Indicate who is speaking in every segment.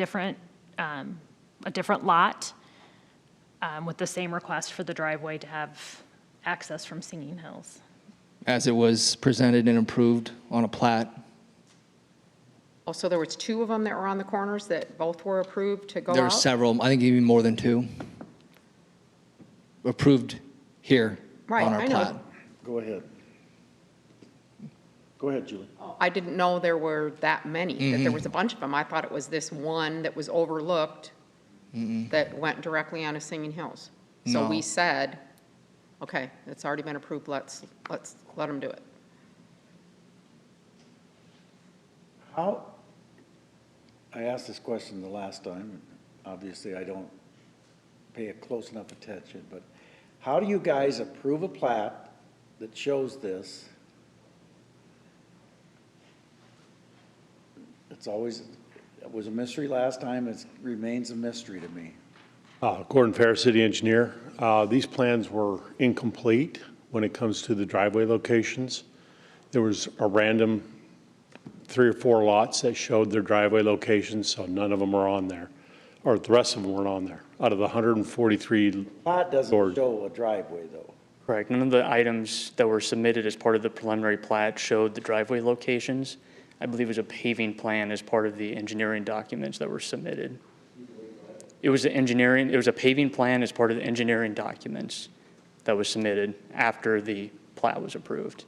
Speaker 1: different, um, a different lot um, with the same request for the driveway to have access from Singing Hills.
Speaker 2: as it was presented and approved on a plat.
Speaker 3: Oh, so there was two of them that were on the corners that both were approved to go
Speaker 2: There are
Speaker 3: out?
Speaker 2: several, I think even more than two, approved here
Speaker 3: Right,
Speaker 2: on our
Speaker 3: I know.
Speaker 2: plat.
Speaker 4: Go ahead. Go ahead, Julie.
Speaker 3: I didn't know there were that many,
Speaker 2: Mm-hmm.
Speaker 3: that there was a bunch of them. I thought it was this one that was overlooked that went directly onto Singing Hills. So
Speaker 2: No.
Speaker 3: we said, okay, it's already been approved, let's, let's, let them do it.
Speaker 4: How, I asked this question the last time, and obviously I don't pay a close enough attention, but how do you guys approve a plat that shows this? It's always, it was a mystery last time, it remains a mystery to me.
Speaker 5: Uh, Gordon Ferris, city engineer. Uh, These plans were incomplete when it comes to the driveway locations. There was a random three or four lots that showed their driveway locations, so none of them are on there, or the rest of them weren't on there, out of the 143.
Speaker 4: Plat doesn't
Speaker 5: Lord.
Speaker 4: show a driveway, though.
Speaker 6: Correct. None of the items that were submitted as part of the preliminary plat showed the driveway locations. I believe it was a paving plan as part of the engineering documents that were submitted. It was the engineering, it was a paving plan as part of the engineering documents that was submitted after the plat was approved.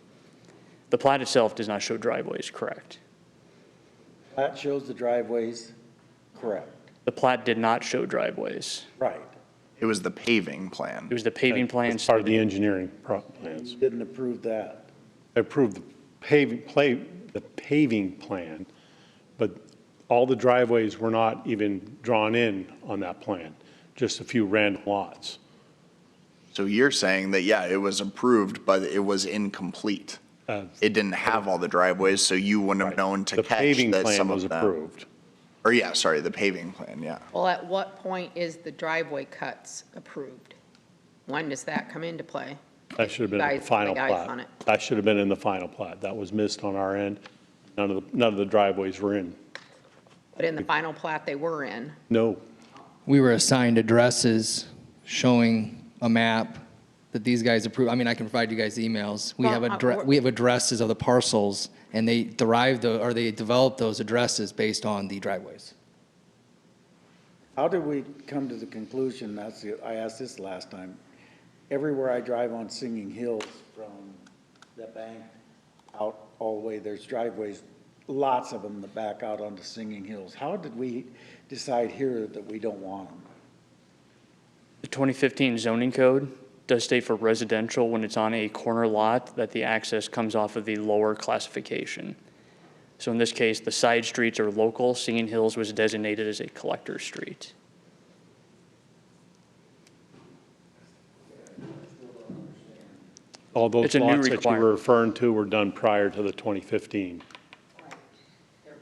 Speaker 6: The plat itself does not show driveways, correct?
Speaker 4: Plat shows the driveways, correct.
Speaker 6: The plat did not show driveways.
Speaker 4: Right.
Speaker 7: It was the paving
Speaker 6: It
Speaker 7: plan.
Speaker 6: was the paving plan
Speaker 5: It's part of the
Speaker 6: submitted-
Speaker 5: engineering pro- plans.
Speaker 4: Didn't approve that.
Speaker 5: I approved the paving, play, the paving plan, but all the driveways were not even drawn in on that plan, just a few random lots.
Speaker 7: So you're saying that, yeah, it was approved, but it was incomplete.
Speaker 5: Uh,
Speaker 7: It didn't have all the driveways, so you wouldn't have known to
Speaker 5: The
Speaker 7: catch
Speaker 5: paving
Speaker 7: that
Speaker 5: plan
Speaker 7: some
Speaker 5: was
Speaker 7: of them.
Speaker 5: approved.
Speaker 7: Or yeah, sorry, the paving plan, yeah.
Speaker 3: Well, at what point is the driveway cuts approved? When does that come into play?
Speaker 5: That should have been in
Speaker 3: Guys,
Speaker 5: the
Speaker 3: the
Speaker 5: final
Speaker 3: guys on it.
Speaker 5: plat. That should have been in the final plat. That was missed on our end. None of, the none of the driveways were in.
Speaker 3: But in the final plat they were in,
Speaker 5: No,
Speaker 2: We were assigned addresses showing a map that these guys approved. I mean, I can provide you guys the emails. We have
Speaker 3: Well, uh,
Speaker 2: addre,
Speaker 3: we're-
Speaker 2: we have addresses of the parcels, and they derived, the- or they developed those addresses based on the driveways.
Speaker 4: How did we come to the conclusion, that's, the- I asked this last time, everywhere I drive on Singing Hills from the bank out all the way, there's driveways, lots of them that back out onto Singing Hills. How did we decide here that we don't want them?
Speaker 6: The 2015 zoning code does state for residential when it's on a corner lot that the access comes off of the lower classification. So in this case, the side streets are local. Singing Hills was designated as a collector street.
Speaker 5: all those
Speaker 6: It's a new
Speaker 5: lots that you
Speaker 6: requirement.
Speaker 5: were referring to were done prior to the 2015.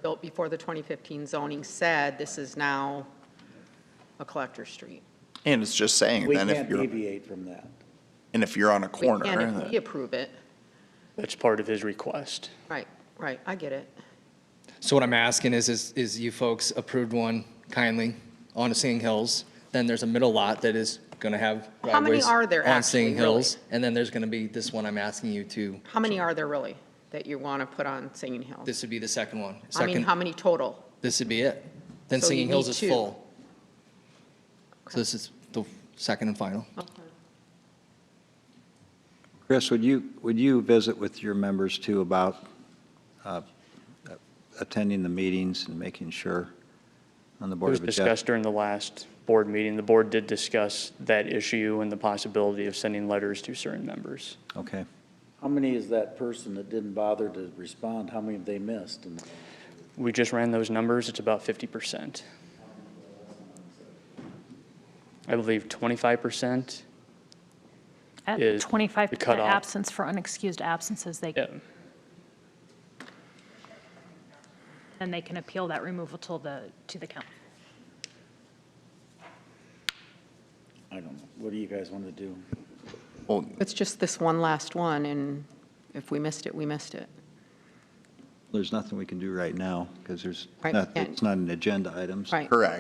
Speaker 3: built before the 2015 zoning said, this is now a collector street.
Speaker 7: And it's just saying
Speaker 4: We
Speaker 7: then if
Speaker 4: can't
Speaker 7: you're,
Speaker 4: deviate from that.
Speaker 7: and if you're on a
Speaker 3: We can
Speaker 7: corner,
Speaker 3: if we
Speaker 7: that-
Speaker 3: approve it.
Speaker 6: That's part of his request.
Speaker 3: Right, right, I get it.
Speaker 2: So what I'm asking is, is, is you folks approved one kindly on Singing Hills, then there's a middle lot that is gonna have driveways.
Speaker 3: How many are there
Speaker 2: On Singing
Speaker 3: actually, really?
Speaker 2: Hills, and then there's gonna be this one I'm asking you to,
Speaker 3: How many are there really that you want to put on Singing Hills?
Speaker 2: this would be the second one.
Speaker 3: I mean,
Speaker 2: Second-
Speaker 3: how many total?
Speaker 2: This would be it. Then
Speaker 3: So you
Speaker 2: Singing Hills
Speaker 3: need
Speaker 2: is
Speaker 3: two.
Speaker 2: full. So this is the second and final.
Speaker 8: Chris, would you, would you visit with your members too about uh, attending the meetings and making sure on the
Speaker 6: It
Speaker 8: Board
Speaker 6: was
Speaker 8: of Adjustment?
Speaker 6: discussed during the last board meeting. The board did discuss that issue and the possibility of sending letters to certain members.
Speaker 8: Okay.
Speaker 4: How many is that person that didn't bother to respond? How many have they missed? And
Speaker 6: We just ran those numbers, it's about fifty percent. I believe twenty-five percent,
Speaker 1: At
Speaker 6: Is the
Speaker 1: 25%
Speaker 6: cutoff.
Speaker 1: absence for unexcused absences, they,
Speaker 6: yeah,
Speaker 1: then they can appeal that removal to the, to the county.
Speaker 4: I don't know. What do you guys want to do?
Speaker 7: well,
Speaker 3: It's just this one last one, and if we missed it, we missed it.
Speaker 8: there's nothing we can do right now because there's,
Speaker 3: Right,
Speaker 8: not-
Speaker 3: and-
Speaker 8: it's not an agenda item. so-
Speaker 3: Right.
Speaker 7: Correct.